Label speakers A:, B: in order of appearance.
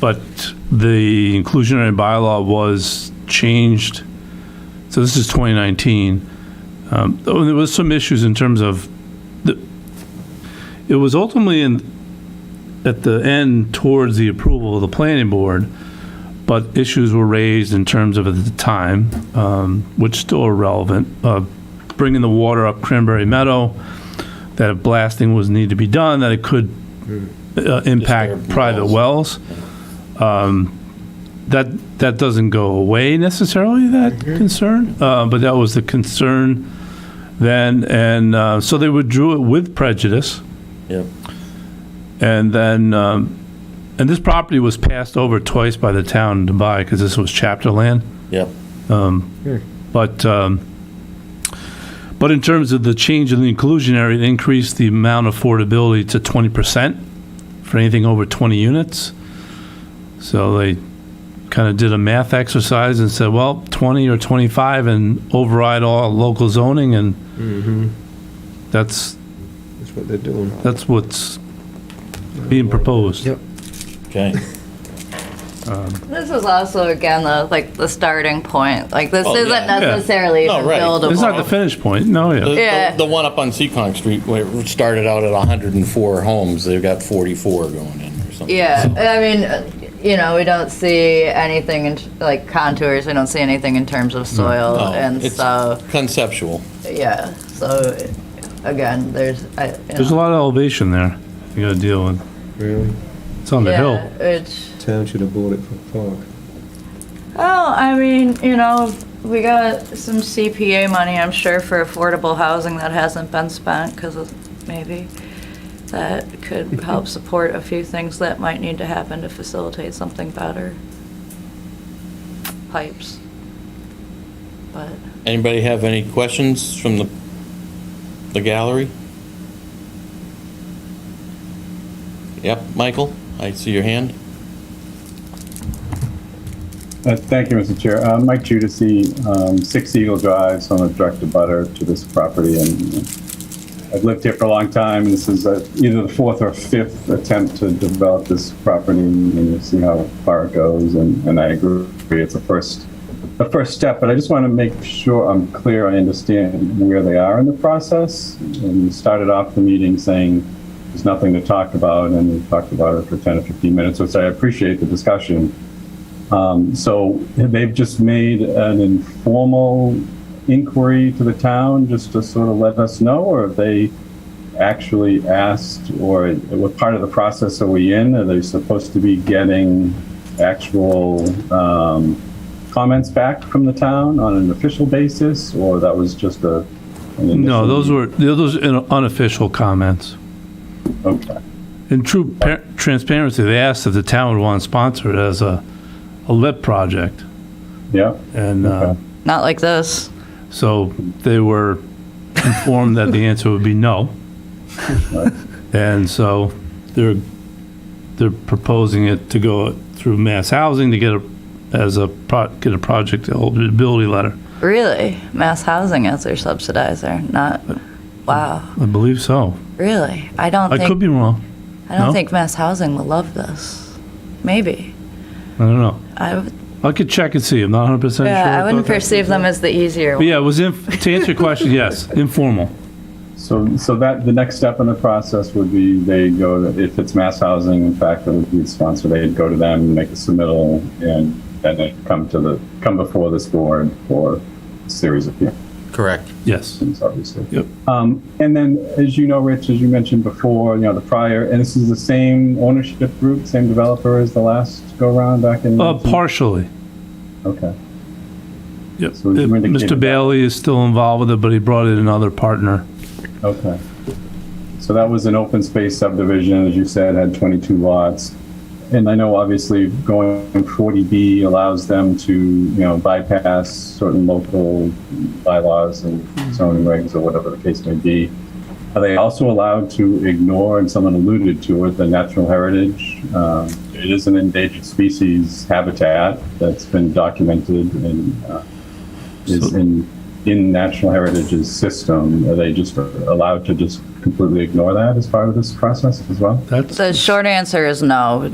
A: But the inclusionary bylaw was changed, so this is 2019. Um, though There was some issues in terms of, the. it was ultimately in, at the end towards the approval of the planning board, but issues were raised in terms of at the time, um, which still are relevant, of bringing the water up Cranberry Meadow, that if blasting was need to be done, that it could uh, impact
B: Disturb
A: private
B: wells.
A: wells. Um, That, that doesn't go away necessarily, that concern, uh, but that was the concern then, and uh, so they withdrew it with prejudice.
B: Yep.
A: And then, um, and this property was passed over twice by the town to buy, because this was chapter land.
B: Yep.
A: But, um, but in terms of the change in the inclusionary, it increased the amount of affordability to 20% for anything over 20 units. So they kind of did a math exercise and said, well, 20 or 25 and override all local zoning, and that's,
C: Mm-hmm. That's what they're doing.
A: that's what's being proposed.
C: Yep.
B: Okay.
D: This is also, again, the, like, the starting point, like, this
B: Oh, yeah.
D: isn't necessarily
B: No,
D: even
B: right.
D: buildable.
A: It's not the finish point, no,
B: The,
A: yeah.
B: the-
D: Yeah.
B: the one up on Seccong Street where it started out at 104 homes, they've got 44 going in or something.
D: Yeah, I mean, uh, you know, we don't see anything in, t- like, contours, we don't see anything in terms
A: Mm.
D: of soil,
B: No,
D: and
B: Oh, it's
D: so,
B: Conceptual.
D: yeah, so, again, there's, I, you
A: There's a lot of elevation there you gotta deal with.
C: Really?
A: It's on the hill.
D: It's,
C: Town should have bought it for Clark.
D: well, I mean, you know, we got some CPA money, I'm sure, for affordable housing that hasn't been spent, because of, maybe, that could help support a few things that might need to happen to facilitate something better. Pipes. But.
B: Anybody have any questions from the, the gallery? Yep, Michael, I see your hand.
E: Uh, Thank you, Mr. Chair. Uh, Mike Judici, um, 6 Eagle Drive, so I'm a direct abutter to this property, and you know, I've lived here for a long time, and this is uh, either the fourth or fifth attempt to develop this property, and you'll see how far it goes, and and I agree, it's the first, the first step, but I just want to make sure I'm clear, I understand where they are in the process. And you started off the meeting saying there's nothing to talk about, and we talked about it for 10 or 15 minutes, which I appreciate the discussion. Um, So they've just made an informal inquiry to the town just to sort of let us know, or have they actually asked, or what part of the process are we in? Are they supposed to be getting actual um, comments back from the town on an official basis, or that was just a? an
A: No,
E: initial-
A: those were, those are unofficial comments.
E: Okay,
A: In true par- transparency, they asked if the town would want to sponsor it as a, a lip project.
E: yeah,
A: And, uh,
E: Okay.
D: Not like this.
A: so they were informed that the answer would be no.
E: Right.
A: And so they're, they're proposing it to go through mass housing to get a, as a, pro- get a project eligibility letter.
D: Really? Mass housing as their subsidizer, not, wow,
A: I believe so.
D: really? I don't
A: I could
D: think,
A: be wrong.
D: I don't
A: no.
D: think mass housing will love this. Maybe.
A: I don't know.
D: I, would-
A: I could check and see. I'm not 100% sure.
D: yeah, I
A: about
D: wouldn't
A: that.
D: perceive them as the easier
A: But
D: one.
A: yeah, it was, inf- to answer your question, yes, informal.
E: so, so that, the next step in the process would be they go, to if it's mass housing, in fact, it would be sponsored, they'd go to them, make a submittal, and then they come to the, come before this board for a series of hearings
B: Correct.
A: Yes.
E: things, obviously.
A: Yep.
E: Um, and then, as you know, Rich, as you mentioned before, you know, the prior, and this is the same ownership group, same developer as the last go-round back in?
A: Uh, partially.
E: Okay,
A: Yep.
E: So it's really
A: Mr.
E: came-
A: Bailey is still involved with it, but he brought in another partner.
E: okay. So that was an open space subdivision, as you said, had 22 lots. And I know obviously going 40B allows them to, you know, bypass certain local bylaws and zoning regs or whatever the case may be. Are they also allowed to ignore, and someone alluded to it, the natural heritage? Um, It is an endangered species habitat that's been documented and uh, is
A: So-
E: in, in National Heritage's system. Are they just allowed to just completely ignore that as part of this process as well?
A: That's
D: The short answer is no.